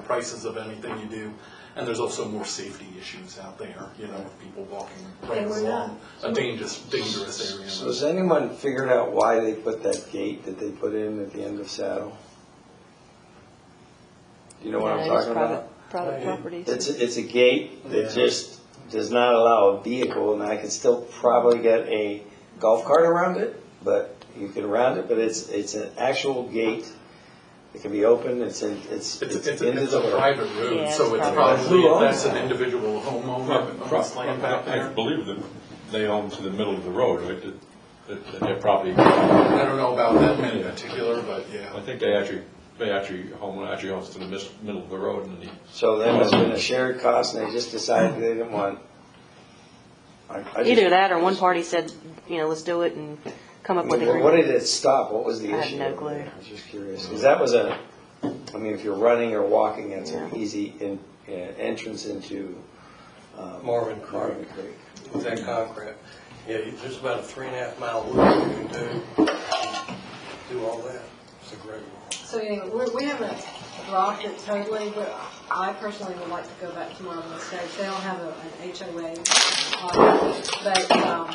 prices of anything you do. And there's also more safety issues out there, you know, with people walking right And we're not- along a dangerous, dangerous area. So has anyone figured out why they put that gate that they put in at the end of Saddle? Do you know what I'm Yeah, it is talking about? Private private It's, properties. it's a gate that just does not allow a vehicle, and I could still probably get a golf cart around it, but you can round it, but it's, it's an actual gate. It can be open, it's in, it's, It's, it's it's, into it's a the, private Yeah, road, it's so it's private. probably, Who if owns that's an that? individual homeowner, owns land back I there. believe that they own to the middle of the road, right, that- that, that their property, I don't know about that man in particular, but I yeah. think they actually, they actually, home actually owns to the mis- middle of the road and the, so there must have been a shared cost, and they just decided they didn't want. I- I just- Either that or one party said, you know, let's do it and come up with a What agreement. did it stop? What was the I have issue? no clue. I was just curious, because that was a, I mean, if you're running or walking, that's an Yeah. easy in- uh, entrance into. um, Marvin Creek. Marvin Creek. with that concrete. Yeah, you- there's about a three and a half mile loop you can do, do all that. It's a great wall. So anyway, we, we haven't dropped it totally, but I personally would like to go back to Marvin Estates. They don't have a- an HOA. uh, But, um,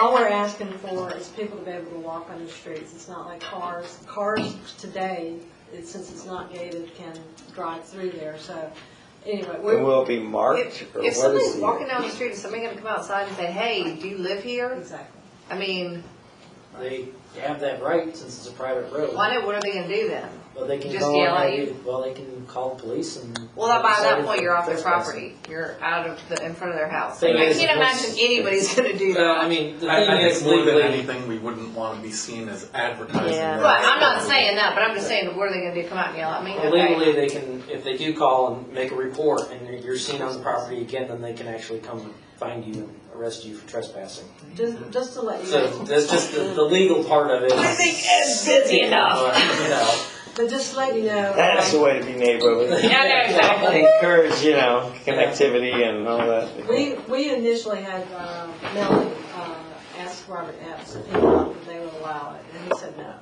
all we're asking for is people to be able to walk on the streets. It's not like cars. Cars today, it- since it's not gated, can drive through there, so anyway. we- And will it be marked, If, or if what somebody's is walking the? down the street, is somebody gonna come outside and say, hey, do you live here? Exactly. I mean, They have that right since it's a private road. why not, what are they gonna do then? Well, they can Just call, yell at maybe- you? well, they can call the police and. Well, by that decide point, you're off their trespassing. property, you're out of the, in front of their house. I Thing is, can't once- imagine anybody's gonna do Well, that. I mean, the I, thing I is think more than legally, anything, we wouldn't want to be seen as advertising. Yeah. that. But I'm not saying that, but I'm just saying, what are they gonna do, come out and yell at me? well, legally, they can, if they do call and make a report and you're- you're seen on the property again, then they can actually come find you and arrest you for trespassing. Just, just to let you So know. that's just the, the legal part of it. I think Ed's busy enough. But, you know, But just to let you know. That's the way to be neighborly. Yeah, I know, exactly. Encourage, you know, connectivity and all that. We, we initially had, uh, Melanie, uh, ask Robert Epps if he thought that they would allow it, and he said no.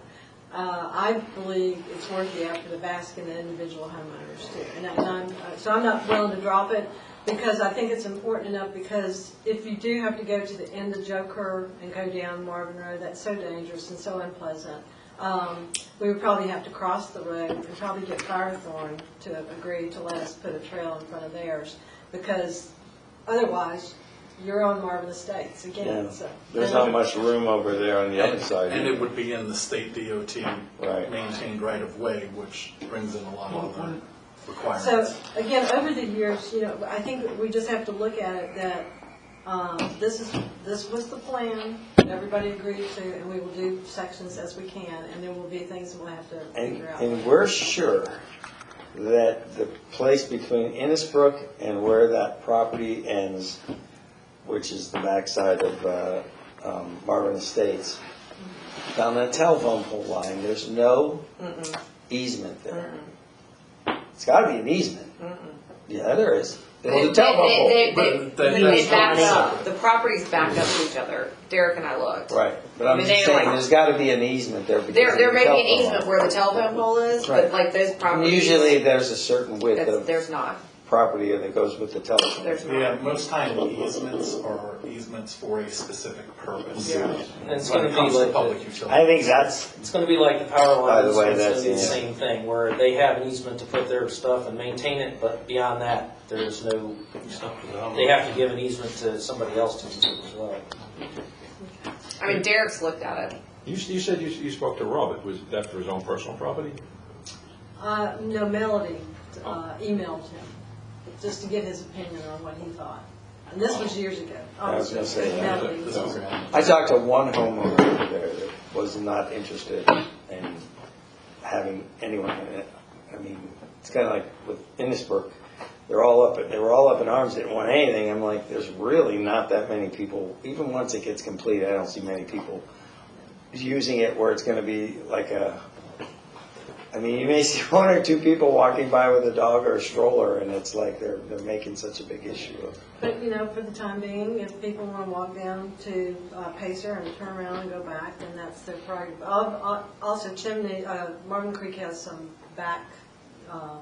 Uh, I believe it's worth the effort of asking the individual homeowners too, and I- and I'm, uh, so I'm not willing to drop it, because I think it's important enough, because if you do have to go to the end of Joe Kerr and go down Marvin Road, that's so dangerous and so unpleasant. Um, we would probably have to cross the road and probably get Firethorn to agree to let us put a trail in front of theirs, because Otherwise, you're on Marvin Estates Yeah. again, so. There's not much room over there on the other side. And it would be in the state DOT Right. maintained right of way, which brings in a lot of other So, requirements. again, over the years, you know, I think we just have to look at it that, um, this is, this was the plan, everybody agreed to, and we will do sections as we can, and there will be things we'll have to And, figure out. and we're sure that the place between Innisbrook and where that property ends, which is the backside of uh, um, Marvin Estates, down that telephone pole line, there's no easement there. It's gotta be an easement. Yeah, there is. There's a They- telephone pole. They, but that- they, they, that's they back totally up, separate. the property's backed up to each other, Derek and I looked. Right, but I I'm mean, just they're saying, like- there's gotta be an easement there. because There, of there the may be an telephone easement line. where the telephone pole is, but Right. like those properties. Usually, there's a certain width That's, of there's not, property that goes with the telephone. there's not. Yeah, most time easements are easements for a specific purpose. Yeah. When it's gonna it be comes to like- public utilities. I think that's, It's gonna be like the power By the lines, way, it's gonna that's be the the- same thing, where they have an easement to put their stuff and maintain it, but beyond that, there's no, they have to give an easement to somebody else to do it as well. I mean, Derek's looked at it. you, s- you said you, s- you spoke to Robert, was that for his own personal property? Uh, no, Melody, uh, emailed him, just to get his opinion on what he thought. And this was years ago, I was gonna obviously, say that. Melody was- I talked to one homeowner there that was not interested in having anyone in it. I mean, it's kind of like with Innisbrook, they're all up, they were all up in arms, didn't want anything. I'm like, there's really not that many people, even once it gets complete, I don't see many people using it where it's gonna be like a, I mean, you may see one or two people walking by with a dog or a stroller, and it's like they're, they're making such a big issue of But, you know, for the time being, if people want to walk down to uh, Pacer and turn around and go back, then that's their prerogative. Al- al- Also Chimney, uh, Marvin Creek has some back uh,